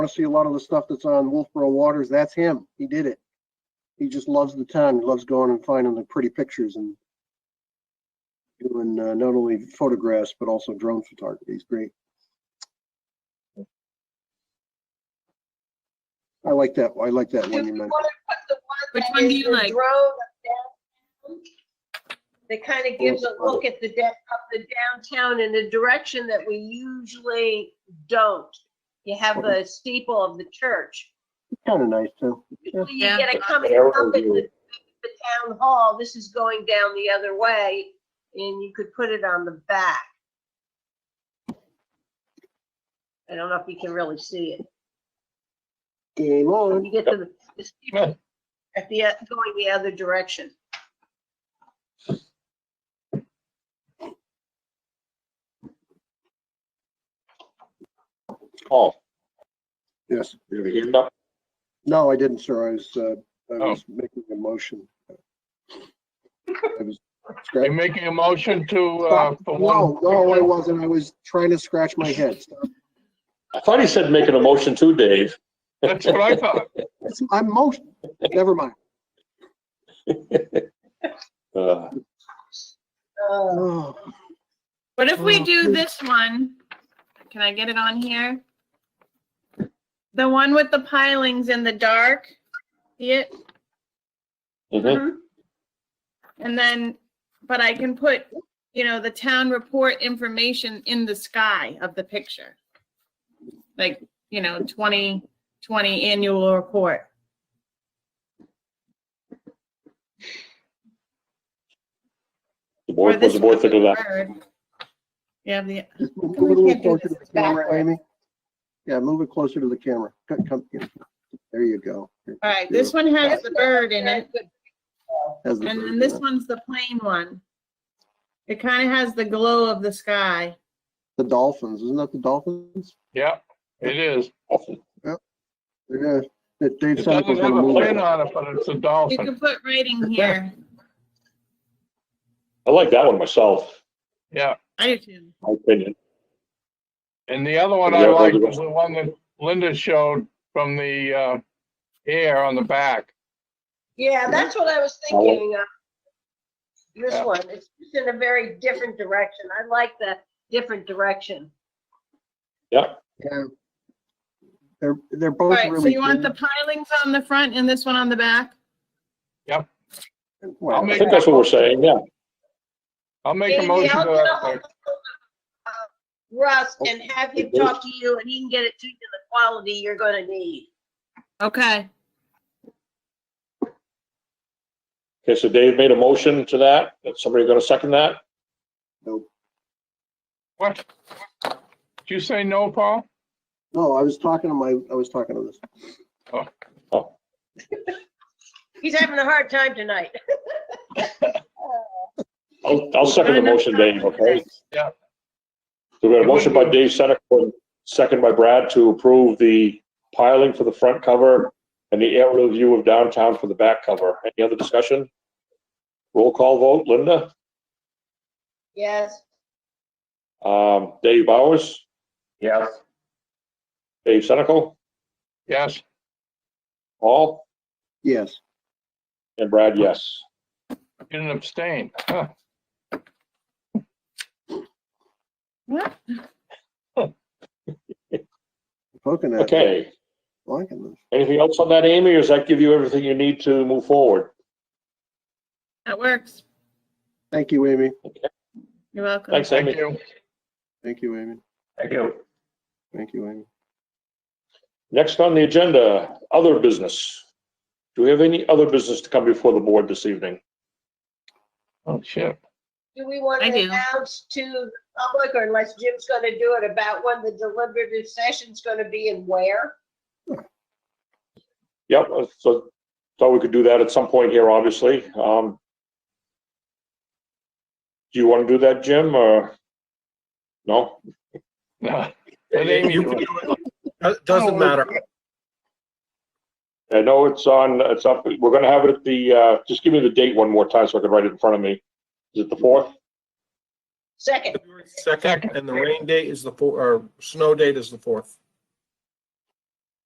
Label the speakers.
Speaker 1: want to see a lot of the stuff that's on Wolfboro Waters, that's him. He did it. He just loves the town. He loves going and finding the pretty pictures and doing uh, not only photographs, but also drone photography. He's great. I like that. I like that
Speaker 2: Do
Speaker 1: one
Speaker 2: we
Speaker 1: you mentioned.
Speaker 2: wanna put the one
Speaker 3: Which
Speaker 2: that
Speaker 3: one do
Speaker 2: is
Speaker 3: you
Speaker 2: the
Speaker 3: like?
Speaker 2: drone of downtown? That kind of gives a
Speaker 1: Yes.
Speaker 2: look at the, da- of the downtown in a direction that we usually don't. You have the steeple of the church.
Speaker 1: Kind of nice too.
Speaker 2: Usually you
Speaker 3: Yeah.
Speaker 2: get a coming
Speaker 1: Yeah.
Speaker 2: up at the, the town hall, this is going down the other way, and you could put it on the back. I don't know if you can really see it.
Speaker 1: Game
Speaker 2: When
Speaker 1: on.
Speaker 2: you get to the- the steeple, at the, uh, going the other direction.
Speaker 4: Paul,
Speaker 1: Yes.
Speaker 4: you have your hand up?
Speaker 1: No, I didn't, sir. I was, uh, I
Speaker 4: Oh.
Speaker 1: was making a motion. I was
Speaker 5: Are
Speaker 1: scratch-
Speaker 5: you making a motion to, uh, for one?
Speaker 1: No, no, I wasn't. I was trying to scratch my head. Stop.
Speaker 4: I thought he said making a motion too, Dave.
Speaker 5: That's what I thought.
Speaker 1: It's- I'm most, never mind.
Speaker 4: Uh,
Speaker 2: Uh,
Speaker 1: Oh,
Speaker 3: What if we
Speaker 1: Oh,
Speaker 3: do
Speaker 1: good.
Speaker 3: this one? Can I get it on here? The one with the pilings in the dark, see it?
Speaker 2: Mm-hmm.
Speaker 4: mhm.
Speaker 3: And then, but I can put, you know, the town report information in the sky of the picture. Like, you know, 2020 annual report.
Speaker 4: The
Speaker 3: Or
Speaker 4: board, was
Speaker 3: this
Speaker 4: the board
Speaker 3: one with
Speaker 4: thinking of that?
Speaker 3: the bird. Yeah, the,
Speaker 1: just move a
Speaker 3: We
Speaker 1: little
Speaker 3: can't do
Speaker 1: closer to the
Speaker 3: this
Speaker 1: camera,
Speaker 3: backwards.
Speaker 1: Amy. Yeah, move it closer to the camera. Come- come here. There you go.
Speaker 3: all right, this one has the bird in it.
Speaker 1: Has the
Speaker 3: And
Speaker 1: bird
Speaker 3: then
Speaker 1: in
Speaker 3: this
Speaker 1: it.
Speaker 3: one's the plain one. It kind of has the glow of the sky.
Speaker 1: The dolphins, isn't that the dolphins?
Speaker 5: Yeah, it is.
Speaker 1: Yeah, that Dave
Speaker 5: It
Speaker 1: Santos
Speaker 5: doesn't have a
Speaker 1: movie.
Speaker 5: fin on it, but it's a
Speaker 3: You
Speaker 5: dolphin.
Speaker 3: can put writing here.
Speaker 4: I like that one myself,
Speaker 5: Yeah.
Speaker 3: I do too.
Speaker 4: my opinion.
Speaker 5: And the other one I
Speaker 4: Yeah, those
Speaker 5: like
Speaker 4: are
Speaker 5: was the one that Linda showed from the, uh, air on the back.
Speaker 2: Yeah, that's what I was
Speaker 4: Oh.
Speaker 2: thinking. uh, This
Speaker 5: Mm-hmm. Yeah.
Speaker 2: one, it's just in a very different direction. I like the different direction.
Speaker 1: Yeah. They're, they're
Speaker 3: All
Speaker 1: both
Speaker 3: right, so
Speaker 1: really.
Speaker 3: you want the pilings on the front and this one on the back?
Speaker 1: good.
Speaker 5: I'll
Speaker 1: Well,
Speaker 4: I
Speaker 5: make-
Speaker 4: think that's what we're saying, yeah.
Speaker 5: I'll make a
Speaker 2: Maybe
Speaker 5: motion
Speaker 2: I'll
Speaker 5: to uh,
Speaker 2: get
Speaker 5: that.
Speaker 2: ahold
Speaker 5: effect.
Speaker 2: of, uh, Russ
Speaker 5: Oh,
Speaker 2: and have him
Speaker 4: Okay.
Speaker 2: talk to you and he can get it to you the quality you're gonna need.
Speaker 3: Okay.
Speaker 4: Okay, so Dave made a motion to that. Is somebody gonna second that?
Speaker 5: What? Did you say no, Paul?
Speaker 1: No, I was talking to my, I was talking to this.
Speaker 2: He's having a hard time tonight.
Speaker 4: I'll, I'll second the motion, Dave, okay?
Speaker 5: Yeah.
Speaker 4: So we got a motion by Dave Senek, second by Brad to approve the piling for the front cover and the aerial view of downtown for the back cover. Any other discussion? Roll call vote, Linda,
Speaker 2: Yes,
Speaker 4: um, Dave Bowers? Yes. Dave Senek,
Speaker 5: Yes.
Speaker 4: Paul,
Speaker 1: Yes.
Speaker 4: and Brad, yes.
Speaker 5: You Didn't abstain. Huh.
Speaker 3: What?
Speaker 1: Poking at. it,
Speaker 4: Okay,
Speaker 1: Liking this.
Speaker 4: anything else on that, Amy, or does that give you everything you need to move forward?
Speaker 3: That works.
Speaker 1: Thank you, Amy.
Speaker 3: You're welcome.
Speaker 4: Thanks,
Speaker 5: Thank
Speaker 4: Amy.
Speaker 5: you.
Speaker 1: Thank you, Amy.
Speaker 4: Thank you.
Speaker 1: Thank you, Amy.
Speaker 4: Next on the agenda, other business. Do we have any other business to come before the board this evening?
Speaker 5: Oh, shit.
Speaker 2: do we want
Speaker 3: I
Speaker 2: to
Speaker 3: do.
Speaker 2: announce to the public or unless Jim's gonna do it about when the deliberative session's gonna be and where?
Speaker 4: Yep, uh, so thought we could do that at some point here, obviously. Um, Do you want to do that, Jim, or? No?
Speaker 5: Let Amy
Speaker 6: You
Speaker 5: do
Speaker 6: can
Speaker 5: it.
Speaker 6: do it. Uh, Doesn't matter.
Speaker 4: I know it's on, it's up, we're gonna have it at the, uh, just give me the date one more time so I can write it in front of me. Is it the fourth?
Speaker 2: Second,
Speaker 6: Second, and the rain date is the four, or snow date is the fourth.